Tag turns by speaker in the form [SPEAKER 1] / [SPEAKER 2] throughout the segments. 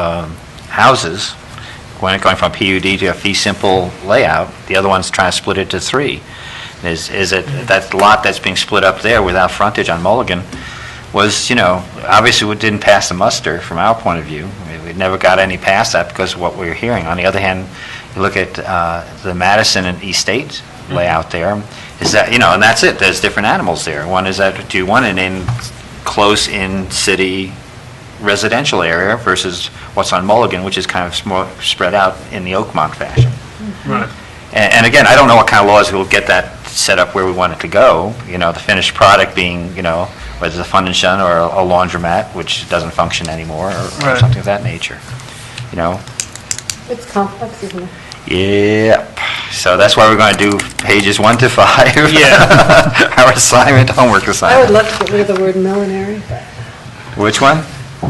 [SPEAKER 1] um, houses, one going from PUD to a fee simple layout, the other one's trying to split it to three. Is, is it, that lot that's being split up there without frontage on Mulligan was, you know, obviously it didn't pass the muster from our point of view. I mean, We never got any past that because of what we were hearing. On the other hand, you look at uh, the Madison and East State layout there, is that, you know, and that's it, there's different animals there. One is that, do you want an in, close-in city residential area versus what's on Mulligan, which is kind of small- spread out in the Oakmont fashion.
[SPEAKER 2] Right.
[SPEAKER 1] And and again, I don't know what kind of laws will get that set up where we want it to go, you know, the finished product being, you know, whether it's a fund and shun or a laundromat, which doesn't function anymore, or- or
[SPEAKER 2] Right.
[SPEAKER 1] something of that nature, you know?
[SPEAKER 3] It's complex, isn't it?
[SPEAKER 1] Yep, so that's why we're going to do pages one to five.
[SPEAKER 2] Yeah.
[SPEAKER 1] Our assignment, homework
[SPEAKER 3] I would
[SPEAKER 1] assignment.
[SPEAKER 3] love to get rid of the word millinery.
[SPEAKER 1] Which one?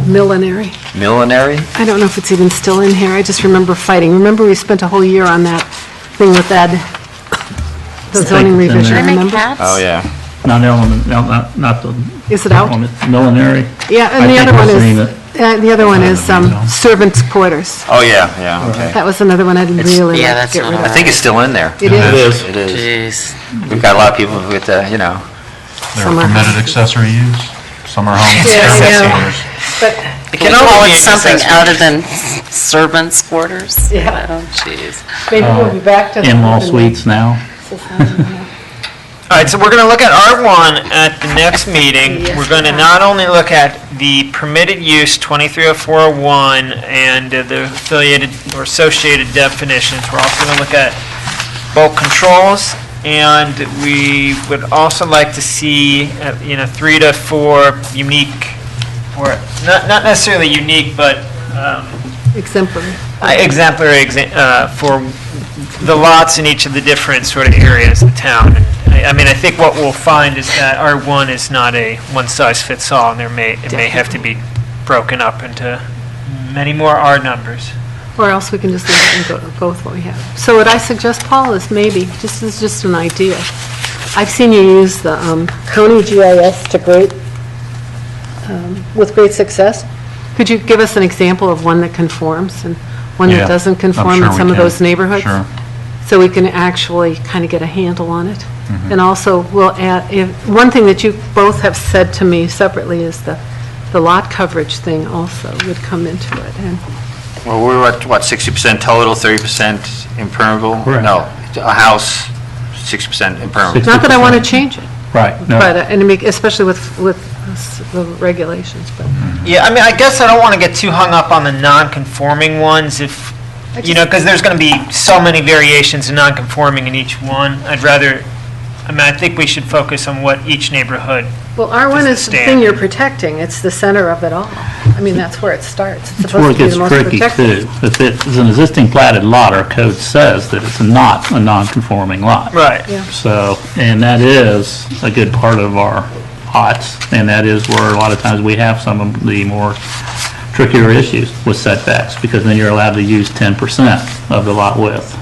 [SPEAKER 3] Millinery.
[SPEAKER 1] Millinery?
[SPEAKER 3] I don't know if it's even still in here, I just remember fighting. Remember, we spent a whole year on that thing with Ed, the zoning
[SPEAKER 4] Steak is in
[SPEAKER 3] revision,
[SPEAKER 4] there.
[SPEAKER 5] Can I make
[SPEAKER 3] remember?
[SPEAKER 5] hats?
[SPEAKER 1] Oh, yeah.
[SPEAKER 4] Not element, no, not, not the.
[SPEAKER 3] Is it out?
[SPEAKER 4] element, Millinery.
[SPEAKER 3] Yeah, and
[SPEAKER 4] I
[SPEAKER 3] the
[SPEAKER 4] think
[SPEAKER 3] other one
[SPEAKER 4] that's the name
[SPEAKER 3] is,
[SPEAKER 4] of
[SPEAKER 3] uh, the other one is um, servants' quarters.
[SPEAKER 1] Oh, yeah, yeah, okay.
[SPEAKER 3] That was another one I'd really
[SPEAKER 5] yeah,
[SPEAKER 3] like to
[SPEAKER 5] that's
[SPEAKER 3] get
[SPEAKER 5] not
[SPEAKER 3] rid
[SPEAKER 1] I
[SPEAKER 3] of.
[SPEAKER 5] on.
[SPEAKER 1] think it's still in there.
[SPEAKER 3] It is.
[SPEAKER 4] is.
[SPEAKER 1] It is.
[SPEAKER 5] Jeez.
[SPEAKER 1] We've got a lot of people with, uh, you know,
[SPEAKER 6] They're
[SPEAKER 3] Summer house.
[SPEAKER 6] permitted accessory use, summer homes,
[SPEAKER 3] Yeah, I
[SPEAKER 6] accessory
[SPEAKER 3] know.
[SPEAKER 6] use.
[SPEAKER 3] But
[SPEAKER 5] We can
[SPEAKER 1] all
[SPEAKER 5] call
[SPEAKER 1] be
[SPEAKER 5] it
[SPEAKER 1] in
[SPEAKER 5] something
[SPEAKER 1] accessories.
[SPEAKER 5] other than servants' quarters.
[SPEAKER 3] Yeah.
[SPEAKER 5] Oh, jeez.
[SPEAKER 3] maybe we'll be back to.
[SPEAKER 4] In-law Uh, suites now.
[SPEAKER 2] All right, so we're going to look at R1 at the next meeting.
[SPEAKER 3] Yes.
[SPEAKER 2] We're going to not only look at the permitted use 230401 and uh, the affiliated or associated definitions, we're also going to look at bulk controls, and we would also like to see, uh, you know, three to four unique, or not not necessarily unique, but um,
[SPEAKER 3] Exemplary.
[SPEAKER 2] I- exemplary exa- uh, for the lots in each of the different sort of areas of town. I I mean, I think what we'll find is that R1 is not a one-size-fits-all, and there may, it may have to be broken up into many more R numbers.
[SPEAKER 3] Or else we can just leave it and go, go with what we have. So what I suggest, Paul, is maybe, this is just an idea. I've seen you use the um, county GIS to great, um, with great success. Could you give us an example of one that conforms and one
[SPEAKER 6] Yeah,
[SPEAKER 3] that doesn't
[SPEAKER 6] I'm
[SPEAKER 3] conform
[SPEAKER 6] sure
[SPEAKER 3] in
[SPEAKER 6] we
[SPEAKER 3] some of
[SPEAKER 6] can.
[SPEAKER 3] those neighborhoods?
[SPEAKER 6] Sure.
[SPEAKER 3] So we can actually kind of get a handle on it.
[SPEAKER 6] Mm-hmm.
[SPEAKER 3] And also, we'll add, if, one thing that you both have said to me separately is the, the lot coverage thing also would come into it. And
[SPEAKER 1] Well, we're at, what, 60% total, 30% impermeable?
[SPEAKER 4] Correct.
[SPEAKER 1] No, a house, 60% impermeable.
[SPEAKER 4] Six-
[SPEAKER 3] Not that I want to change it.
[SPEAKER 4] Right, no.
[SPEAKER 3] But, uh, and to make- especially with, with s- the regulations, but.
[SPEAKER 2] Yeah, I mean, I guess I don't want to get too hung up on the non-conforming ones if, you know, because there's going to be so many variations of non-conforming in each one. I'd rather, I mean, I think we should focus on what each neighborhood
[SPEAKER 3] Well, R1 is the thing
[SPEAKER 2] Standard.
[SPEAKER 3] you're protecting, it's the center of it all. I mean, that's where it starts. It's
[SPEAKER 4] That's where
[SPEAKER 3] supposed
[SPEAKER 4] it
[SPEAKER 3] to be
[SPEAKER 4] gets
[SPEAKER 3] the most
[SPEAKER 4] tricky
[SPEAKER 3] protected.
[SPEAKER 4] too. If it's an existing platted lot, our code says that it's not a non-conforming lot.
[SPEAKER 2] Right.
[SPEAKER 3] Yeah.
[SPEAKER 4] So, and that is a good part of our lots, and that is where a lot of times we have some of the more trickier issues with setbacks, because then you're allowed to use 10% of the lot width.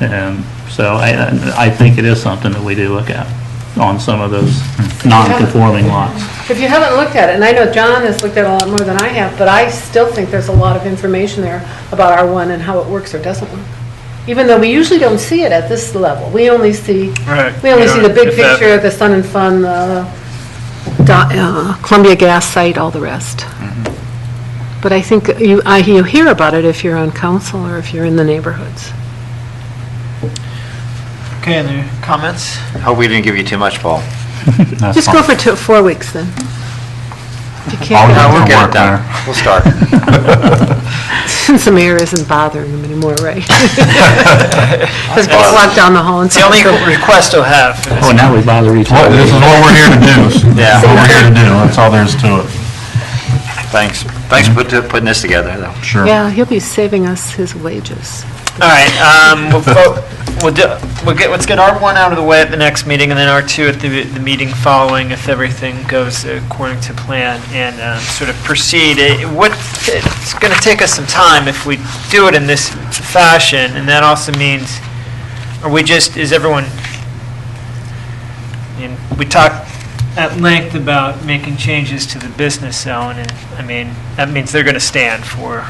[SPEAKER 4] And so I, I think it is something that we do look at on some of those non-conforming lots.
[SPEAKER 3] If you haven't looked at it, and I know John has looked at it a lot more than I have, but I still think there's a lot of information there about R1 and how it works or doesn't work. Even though we usually don't see it at this level, we only see,
[SPEAKER 2] Right.
[SPEAKER 3] we only
[SPEAKER 2] Yeah,
[SPEAKER 3] see the big
[SPEAKER 2] if that-
[SPEAKER 3] picture, the Sun and Fun, the Do- uh, Columbia Gas site, all the rest. But I think you, I, you hear about it if you're on council or if you're in the neighborhoods.
[SPEAKER 2] Okay, any comments?
[SPEAKER 1] Hope we didn't give you too much, Paul.
[SPEAKER 4] That's
[SPEAKER 3] Just
[SPEAKER 4] fine.
[SPEAKER 3] go for two, four weeks then. If you
[SPEAKER 6] All
[SPEAKER 3] can't,
[SPEAKER 6] we
[SPEAKER 3] get
[SPEAKER 6] have
[SPEAKER 3] out
[SPEAKER 1] We'll
[SPEAKER 6] Don't
[SPEAKER 1] get it
[SPEAKER 6] work
[SPEAKER 1] done. We'll start.
[SPEAKER 3] Since the mayor isn't bothering them anymore, right? Just walk down the hall and
[SPEAKER 2] It's the only
[SPEAKER 3] say,
[SPEAKER 2] request I'll have for this.
[SPEAKER 4] Oh, now we bother each
[SPEAKER 6] Well,
[SPEAKER 4] other.
[SPEAKER 6] This is what we're here to do.
[SPEAKER 1] Yeah.
[SPEAKER 6] This is what we're here to do, that's all there is to it.
[SPEAKER 1] Thanks, thanks for put- putting this together, though.
[SPEAKER 6] Sure.
[SPEAKER 3] yeah, he'll be saving us his wages.
[SPEAKER 2] All right, um, we'll, vote- we'll do, we'll get, let's get R1 out of the way at the next meeting, and then R2 at the, the meeting following, if everything goes according to plan, and, um, sort of proceed. It- What, it's gonna take us some time if we do it in this fashion, and that also means, are we just, is everyone, I mean, we talked at length about making changes to the business zone, and, I mean, that means they're gonna stand for